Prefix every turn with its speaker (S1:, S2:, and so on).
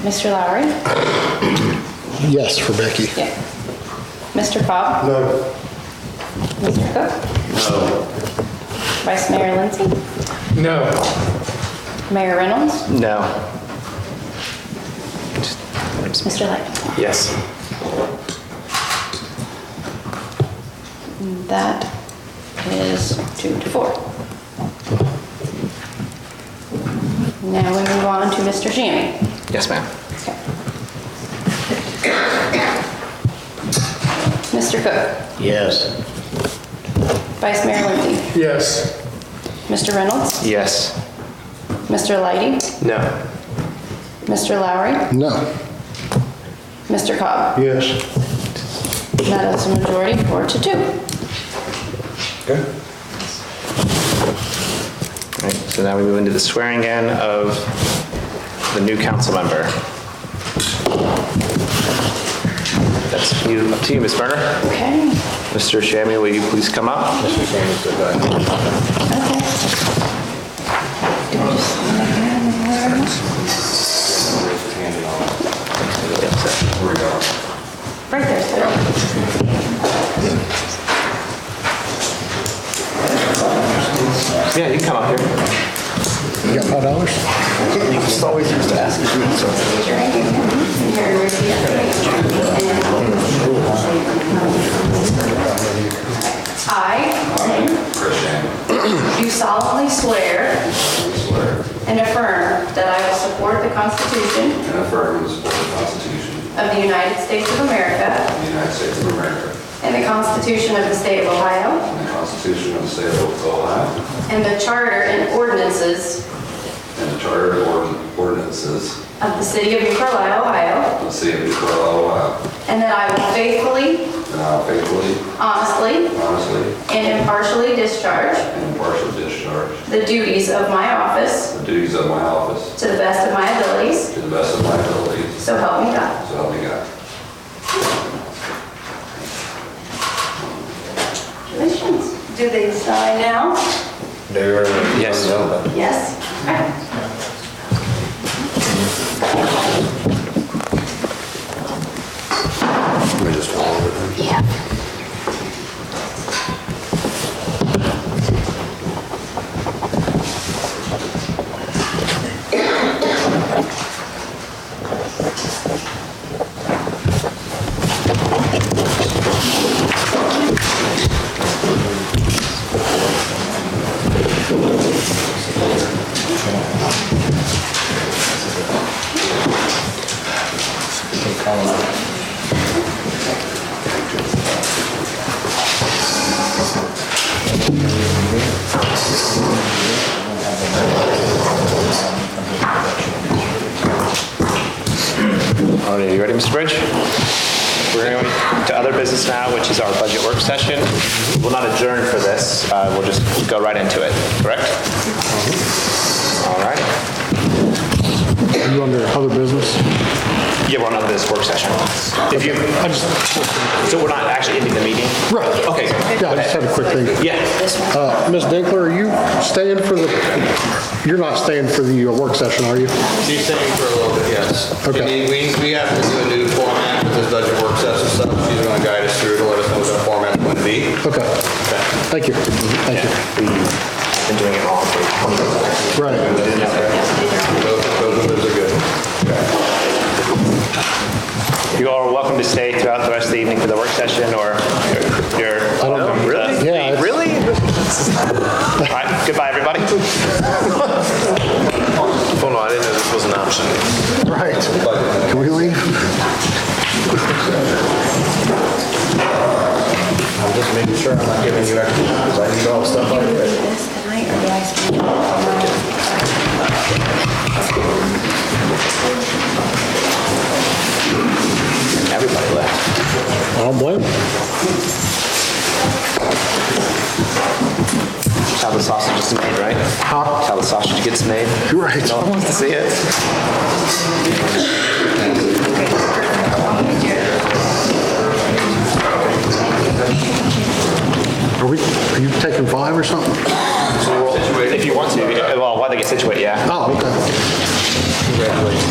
S1: Mr. Lowry?
S2: Yes, for Becky.
S1: Yeah. Mr. Cobb?
S2: No.
S1: Mr. Cook? Vice Mayor Lindsay?
S3: No.
S1: Mayor Reynolds?
S3: No.
S1: Mr. Light?
S3: Yes.
S1: That is two to four. Now we move on to Mr. Shammy.
S3: Yes, ma'am.
S1: Okay. Mr. Cook?
S2: Yes.
S1: Vice Mayor Lindsay?
S3: Yes.
S1: Mr. Reynolds?
S3: Yes.
S1: Mr. Lighty?
S3: No.
S1: Mr. Lowry?
S2: No.
S1: Mr. Cobb?
S2: Yes.
S1: That is a majority, four to two.
S2: Okay.
S4: All right, so now we move into the swearing in of the new council member. That's you, up to you, Ms. Berner.
S1: Okay.
S4: Mr. Shammy, will you please come up?
S1: Okay. Right there, sir.
S4: Yeah, you can come up here.
S2: You got five dollars?
S1: I do solemnly swear and affirm that I will support the Constitution
S5: And affirm and support the Constitution
S1: of the United States of America
S5: of the United States of America
S1: and the Constitution of the State of Ohio
S5: and the Constitution of the State of Ohio
S1: and the Charter and ordinances
S5: and the Charter and Ord- ordinances
S1: of the City of New Carlisle, Ohio,
S5: of the City of New Carlisle, Ohio.
S1: and that I will faithfully,
S5: And I will faithfully,
S1: honestly,
S5: honestly,
S1: and impartially discharge
S5: and impartially discharge
S1: the duties of my office
S5: the duties of my office
S1: to the best of my abilities,
S5: to the best of my abilities.
S1: so help me God.
S5: So help me God.
S1: Congratulations. Do they sign now?
S4: Yes.
S1: Yes.
S5: Let me just follow it.
S4: All right, you ready, Mr. Bridge? We're going to other business now, which is our budget work session. We'll not adjourn for this, uh, we'll just go right into it, correct? All right.
S2: Are you under other business?
S4: Yeah, we're on to this work session. If you, so we're not actually ending the meeting?
S2: Right.
S4: Okay, good.
S2: Yeah, I just had a quick thing.
S4: yeah.
S2: Uh, Ms. Dinkler, are you staying for the, you're not staying for the uh, work session, are you?
S6: She's staying for a little bit, yes. She
S2: Okay.
S6: need- We, we have to do a new format with this budget work session stuff. She's gonna guide us through to let us know what that format's going to be.
S2: Okay. Thank you. Thank you.
S4: Been doing it wrong for 20 years.
S2: Right.
S6: Those, those numbers are good.
S4: You all are welcome to stay throughout the rest of the evening for the work session, or you're...
S2: know.
S4: Really?
S2: Yeah, it's-
S4: uh, Really? All right, goodbye, everybody.
S3: Hold on, I didn't know this was an option.
S2: Right. Can we leave?
S6: I'm just making sure I'm not giving you extra, because I need all the stuff on
S1: Do this tonight, or do I sign it tomorrow?
S4: Everybody left.
S2: I don't blame them.
S4: That's how the sausage is made, right? That's how the sausage gets made.
S2: Right.
S4: No one wants to see it.
S2: Are we, are you taking five or something?
S4: If you want to, well, while they get situated, yeah.
S2: Oh, okay.
S6: Congratulations.